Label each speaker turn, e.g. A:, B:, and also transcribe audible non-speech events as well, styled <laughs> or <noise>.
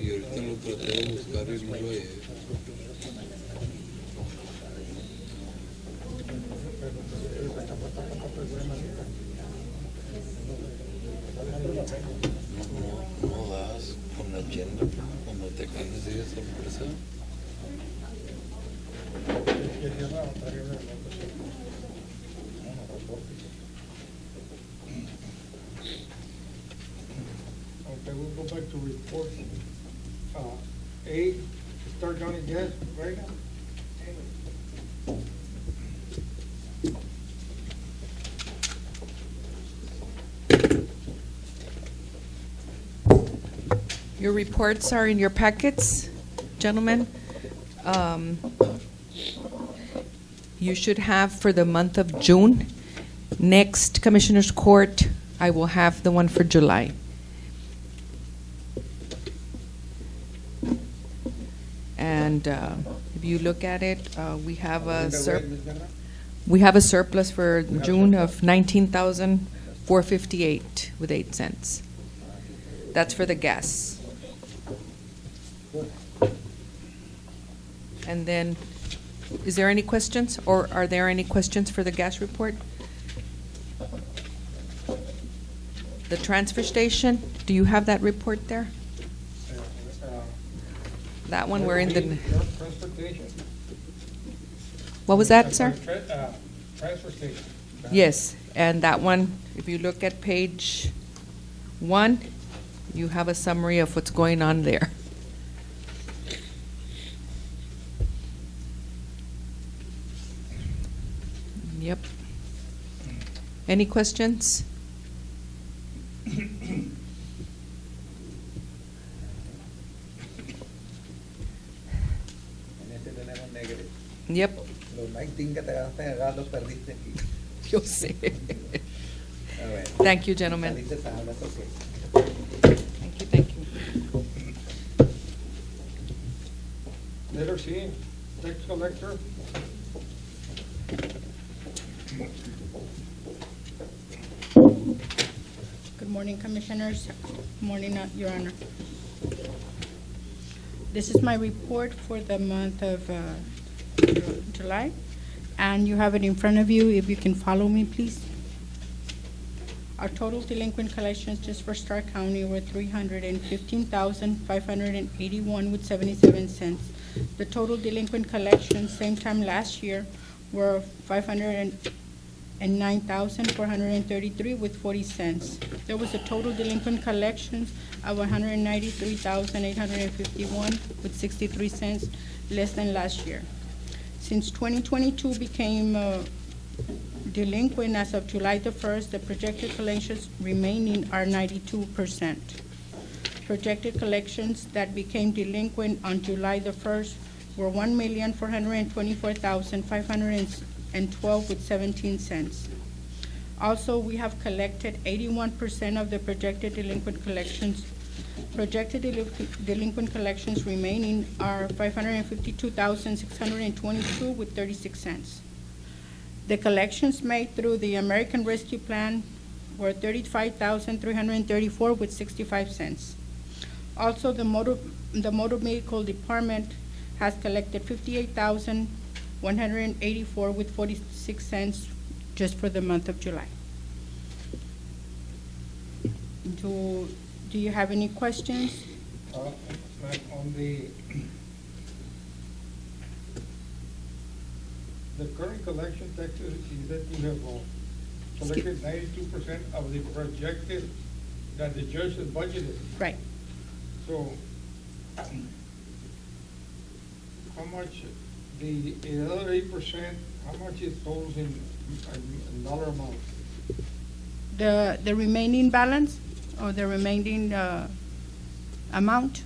A: Y ahorita lo traté de buscar y no lo he. No, no, no das con la agenda cuando te ganas de sorpresa.
B: Okay, we'll go back to reports. Uh, A, start down again, right?
C: Your reports are in your packets, gentlemen. Um, You should have for the month of June. Next Commissioners Court, I will have the one for July. And uh, if you look at it, uh, we have a surplus. We have a surplus for June of nineteen thousand four fifty-eight with eight cents. That's for the gas. And then, is there any questions, or are there any questions for the gas report? The transfer station, do you have that report there? That one, we're in the,
B: Transportation.
C: what was that, sir?
B: Tra- uh, Transfer station.
C: Yes, and that one, if you look at page one, you have a summary of what's going on there. Yep. Any questions?
D: En este tenemos negro.
C: Yep, <laughs>
D: Los 19 que te ganaste en el gas los perdiste aquí.
C: yo sé.
D: A ver.
C: Thank you, gentlemen.
D: Saliste sano, that's okay.
C: Thank you, thank you.
B: Letter C, tax collector.
E: Good morning, Commissioners. Good Morning, uh, Your Honor. This is my report for the month of uh, Ju- July, and you have it in front of you. If you can follow me, please. Our total delinquent collections just for Stark County were three hundred and fifteen thousand, five hundred and eighty-one with seventy-seven cents. The total delinquent collections same time last year were five hundred and nine thousand, four hundred and thirty-three with forty cents. There was a total delinquent collections of one hundred and ninety-three thousand, eight hundred and fifty-one with sixty-three cents, less than last year. Since 2022 became uh, delinquent as of July the 1st, the projected collections remaining are 92%. Projected collections that became delinquent on July the 1st were $1,424,512 with 17 cents. Also, we have collected 81% of the projected delinquent collections Projected delin- delinquent collections remaining are five hundred and fifty-two thousand, six hundred and twenty-two with thirty-six cents. The collections made through the American Rescue Plan were thirty-five thousand, three hundred and thirty-four with sixty-five cents. Also, the motor, the motor vehicle department has collected fifty-eight thousand, one hundred and eighty-four with forty-six cents just for the month of July. Do, do you have any questions?
B: Uh, like On the, the current collection taxes is that you have uh, collected ninety-two percent of the projected that the judge has budgeted.
E: Right.
B: So how much, the the other eight percent, how much is those in in dollar amount?
E: The, the remaining balance or the remaining uh, amount?